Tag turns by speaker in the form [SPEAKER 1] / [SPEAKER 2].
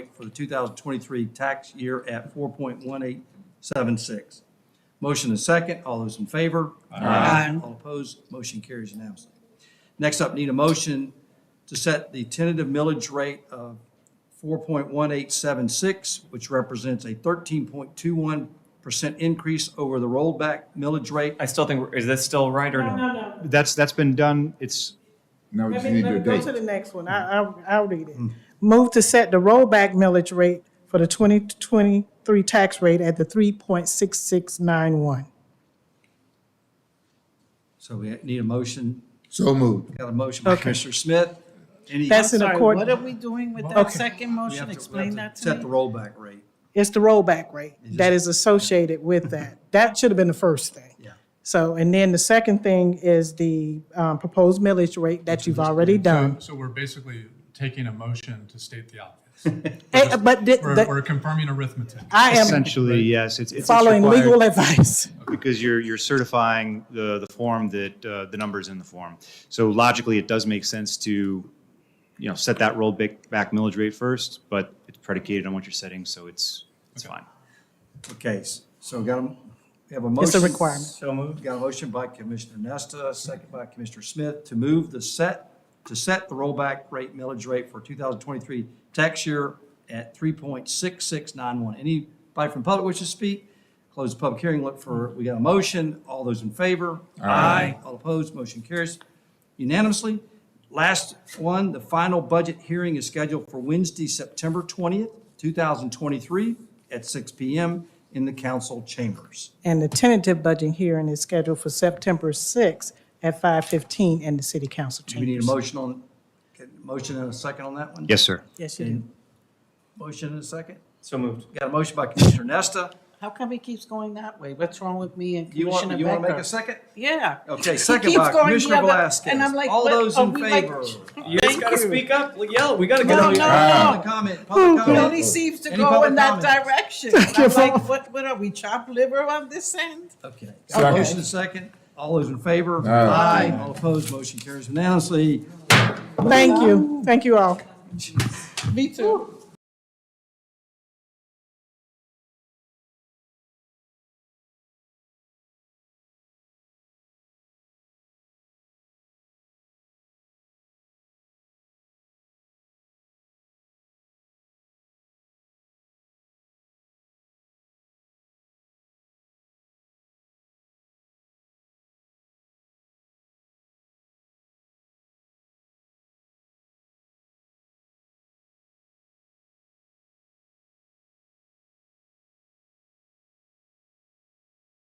[SPEAKER 1] for the 2023 tax year at 4.1876. Motion is second. All those in favor?
[SPEAKER 2] Aye.
[SPEAKER 1] All opposed? Motion carries unanimously. Next up, need a motion to set the tentative millage rate of 4.1876, which represents a 13.21% increase over the rollback millage rate
[SPEAKER 3] I still think, we're- is this still right or
[SPEAKER 4] No,
[SPEAKER 3] no?
[SPEAKER 4] no, no.
[SPEAKER 2] That's, that's been done. It's,
[SPEAKER 5] Now we
[SPEAKER 4] Let
[SPEAKER 5] just
[SPEAKER 4] me,
[SPEAKER 5] need
[SPEAKER 4] let
[SPEAKER 5] your
[SPEAKER 4] me go
[SPEAKER 5] date.
[SPEAKER 4] to the next one.
[SPEAKER 6] Mm.
[SPEAKER 4] I, I'll, I'll read it. Move to set the rollback millage rate for the twenty twenty-three tax rate at the three point six six nine one.
[SPEAKER 1] So we need a motion,
[SPEAKER 5] So moved.
[SPEAKER 1] got a motion by
[SPEAKER 4] Okay.
[SPEAKER 1] Commissioner Smith. Any-
[SPEAKER 4] That's in
[SPEAKER 6] Sorry,
[SPEAKER 4] accordance.
[SPEAKER 6] what are we doing with
[SPEAKER 4] Okay.
[SPEAKER 6] that second
[SPEAKER 1] we have to-
[SPEAKER 6] motion?
[SPEAKER 1] we have
[SPEAKER 6] Explain
[SPEAKER 1] to
[SPEAKER 6] that to
[SPEAKER 1] Set the
[SPEAKER 6] me.
[SPEAKER 1] rollback rate.
[SPEAKER 4] It's the rollback rate that is associated with that. That should have been the first thing.
[SPEAKER 1] Yeah.
[SPEAKER 4] So, and then the second thing is the um, proposed millage rate that you've already done.
[SPEAKER 7] So we're basically taking a motion to state the obvious.
[SPEAKER 4] Eh, But the-
[SPEAKER 7] We're,
[SPEAKER 4] the-
[SPEAKER 7] we're confirming arithmetic.
[SPEAKER 4] I am
[SPEAKER 2] essentially, yes, it's, it's
[SPEAKER 4] following legal
[SPEAKER 2] required
[SPEAKER 4] advice.
[SPEAKER 2] because you're, you're certifying the, the form that, uh, the numbers in the form. So logically, it does make sense to, you know, set that rollback back millage rate first, but it's predicated on what you're setting, so it's, it's fine.
[SPEAKER 1] Okay, s- so got a, we have a motion.
[SPEAKER 4] requirement.
[SPEAKER 3] So moved.
[SPEAKER 1] Got a motion by Commissioner Nesta, second by Commissioner Smith to move the set, to set the rollback rate, millage rate for 2023 tax year at 3.6691. Anybody from public wish to speak? Close the public hearing, look for, we got a motion. All those in favor? Aye. All opposed, motion carries unanimously. Last one, the final budget hearing is scheduled for Wednesday, September 20th, 2023, at 6 PM in the council chambers.
[SPEAKER 4] And the tentative budget hearing is scheduled for September sixth at five fifteen in the city council
[SPEAKER 1] Do we need
[SPEAKER 4] chambers.
[SPEAKER 1] a motion on, okay, motion and a second on that one?
[SPEAKER 2] Yes, sir.
[SPEAKER 4] Yes, you do.
[SPEAKER 1] And Motion and a second?
[SPEAKER 3] So moved.
[SPEAKER 1] Got a motion by Commissioner Nesta.
[SPEAKER 6] How come he keeps going that way? What's wrong with me and
[SPEAKER 1] Do you want,
[SPEAKER 6] Commissioner
[SPEAKER 1] you want to make a
[SPEAKER 6] Becker?
[SPEAKER 1] second?
[SPEAKER 6] Yeah.
[SPEAKER 1] Okay,
[SPEAKER 6] He
[SPEAKER 1] second
[SPEAKER 6] keeps
[SPEAKER 1] by
[SPEAKER 6] going the
[SPEAKER 1] Commissioner
[SPEAKER 6] other-
[SPEAKER 1] Velasquez.
[SPEAKER 6] And I'm like,
[SPEAKER 1] All
[SPEAKER 6] what
[SPEAKER 1] those
[SPEAKER 6] are
[SPEAKER 1] in
[SPEAKER 6] we like-
[SPEAKER 1] favor?
[SPEAKER 3] You just gotta speak up, yell, we gotta get
[SPEAKER 6] No,
[SPEAKER 3] out of here.
[SPEAKER 6] no.
[SPEAKER 1] Public comment, public
[SPEAKER 6] He only
[SPEAKER 1] comment.
[SPEAKER 6] seems to
[SPEAKER 1] Any
[SPEAKER 6] go
[SPEAKER 1] public
[SPEAKER 6] in that
[SPEAKER 1] comment?
[SPEAKER 6] direction. And I'm like, what, what are we, chopped liver on this end?
[SPEAKER 1] Okay, got a motion and a second. All those in favor? Aye. All opposed, motion carries unanimously.
[SPEAKER 4] Thank you. Thank you all.
[SPEAKER 6] Me too.